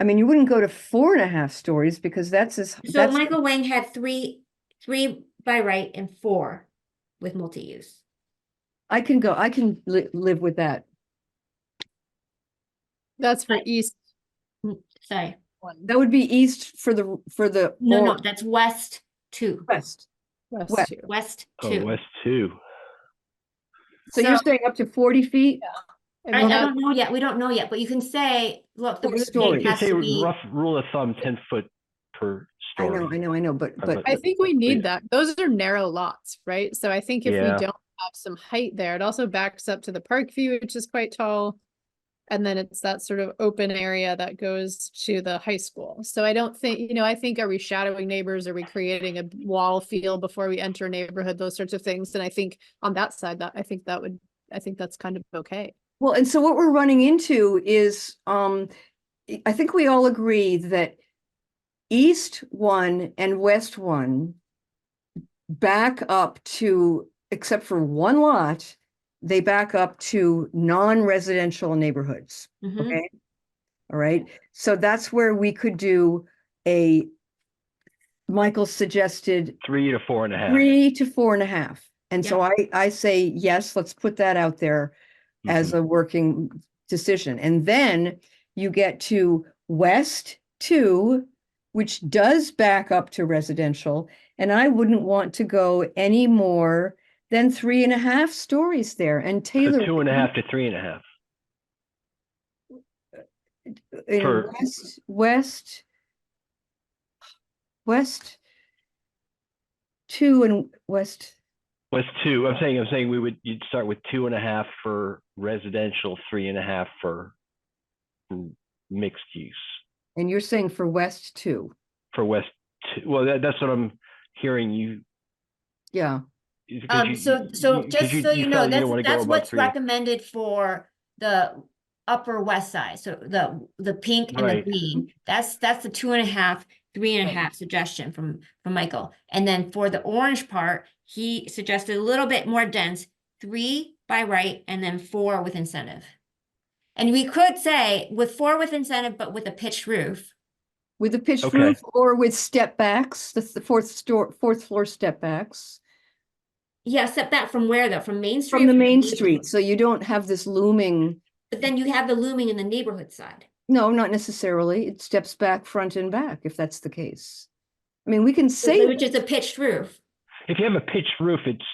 I mean, you wouldn't go to four and a half stories because that's as, So that's, Michael Wang had three, three by right and four with multi-use. I can go, I can li- live with that. That's for Right. east Sorry, one, That would be east for the, for the. no, no, or- that's west two, West. west West. two. west Oh, two. West two. So you're So- saying up to forty feet? And I, I we'll have- don't know yet, we don't know yet, but you can say, look, the Four roof stories. tank You can has say to be. rough rule of thumb, ten foot per I know, I story. know, I know, but, Uh, but, but- I think we yeah. need that. Those are narrow lots, right? So I think if we Yeah. don't have some height there, it also backs up to the park view, which is quite tall. And then it's that sort of open area that goes to the high school. So I don't think, you know, I think are we shadowing neighbors? Are we creating a wall feel before we enter a neighborhood? Those sorts of things. And I think on that side, that I think that would, I think that's kind of okay. well, and so what we're running into is, um, I- I think we all agree that east one and west one back up to, except for one lot, they back up to non-residential neighborhoods. Mhm. okay? All right, so that's where we could do a, Michael suggested Three to four and a half. three to four and a half. And Yeah. so I, I say, yes, let's put that out there as Mhm. a working decision. And then you get to West two, which does back up to residential. And I wouldn't want to go any more than three and a half stories there and So Taylor. two and a half to three and a half. in per- West, West, West two and West West two, I'm saying, I'm saying we would, you'd start with two and a half for residential, three and a half for m- mixed use. And you're saying for West too? For West two, well, that, that's what I'm hearing you. Yeah, is 'cause Um, you- so, you- so 'cause just so felt you didn't know, wanna that's, go that's above what's three. recommended for the upper west side, so the, the pink and the Right. green. That's, that's the two and a half, three and a Right. half suggestion from, from Michael. And then for the orange part, he suggested a little bit more dense, three by right, and then four with incentive. And we could say with four with incentive, but with a pitched roof, with a pitched Okay. roof or with step backs, that's the fourth store, fourth floor step backs. yeah, step back from where though, from Main Street? From the or main neighborhood? street, so you don't have this looming, But then you have the looming in the neighborhood side. no, not necessarily, it steps back front and back if that's the case. I mean, we can say, Which is a pitched roof. if you have a pitched roof, it's,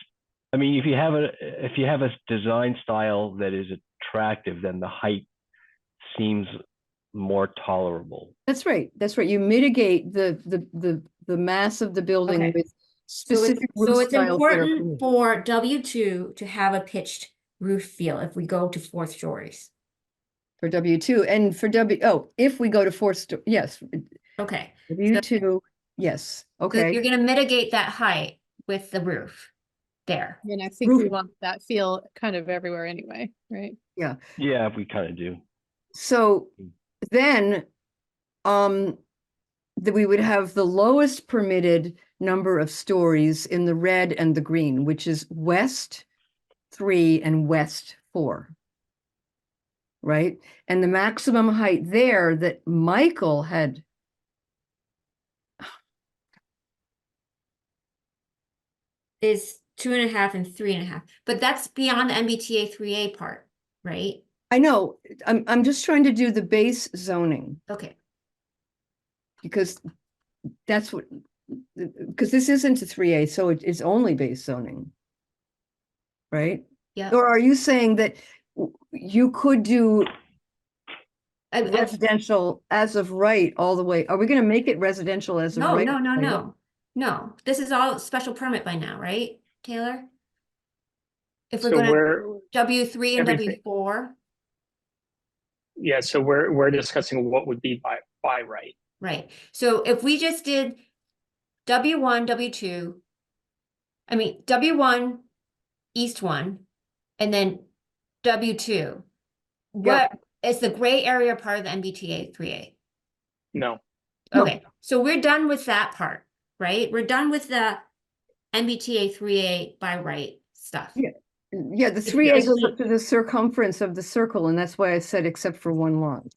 I mean, if you have a, if you have a design style that is attractive, then the height seems more tolerable. that's right, that's right, you mitigate the, the, the, the mass of the building Okay. with So it's, specific so roof it's styles that are important for W two to have a pitched roof feel if we go to fourth stories. for W two, and for W, oh, if we go to fourth, sto- yes, Okay, W two, yes, so okay. you're gonna mitigate that height with the roof there. And I think we Roof- want that feel kind of everywhere anyway, right? Yeah, we kind of do. So Mm. then, um, that we would have the lowest permitted number of stories in the red and the green, which is west three and west four. Right? And the maximum height there that Michael had. Is two and a half and three and a half, but that's beyond the MBTA three A part, right? I know, I'm, I'm just trying to do the base zoning. Okay, Because that's what, because this isn't a three A, so it is only base zoning. Right? yeah. Or are you saying that w- you could do I- I- residential as of right all the way? Are we gonna make it residential as of No, right? no, no, all the way? no, no. This is all special permit by now, right, Taylor? If we're So gonna we're, W three and W everything- four, yeah, so we're, we're discussing what would be by, by right. Right, so if we just did W one, W two. I mean, W one, east one, and then W two. What is the gray area part of the MBTA three A? No, No. Okay, so we're done with that part, right? We're done with the MBTA three A by right stuff. Yeah. Yeah, the If three A there's goes a- up to the circumference of the circle, and that's why I said except for one lot.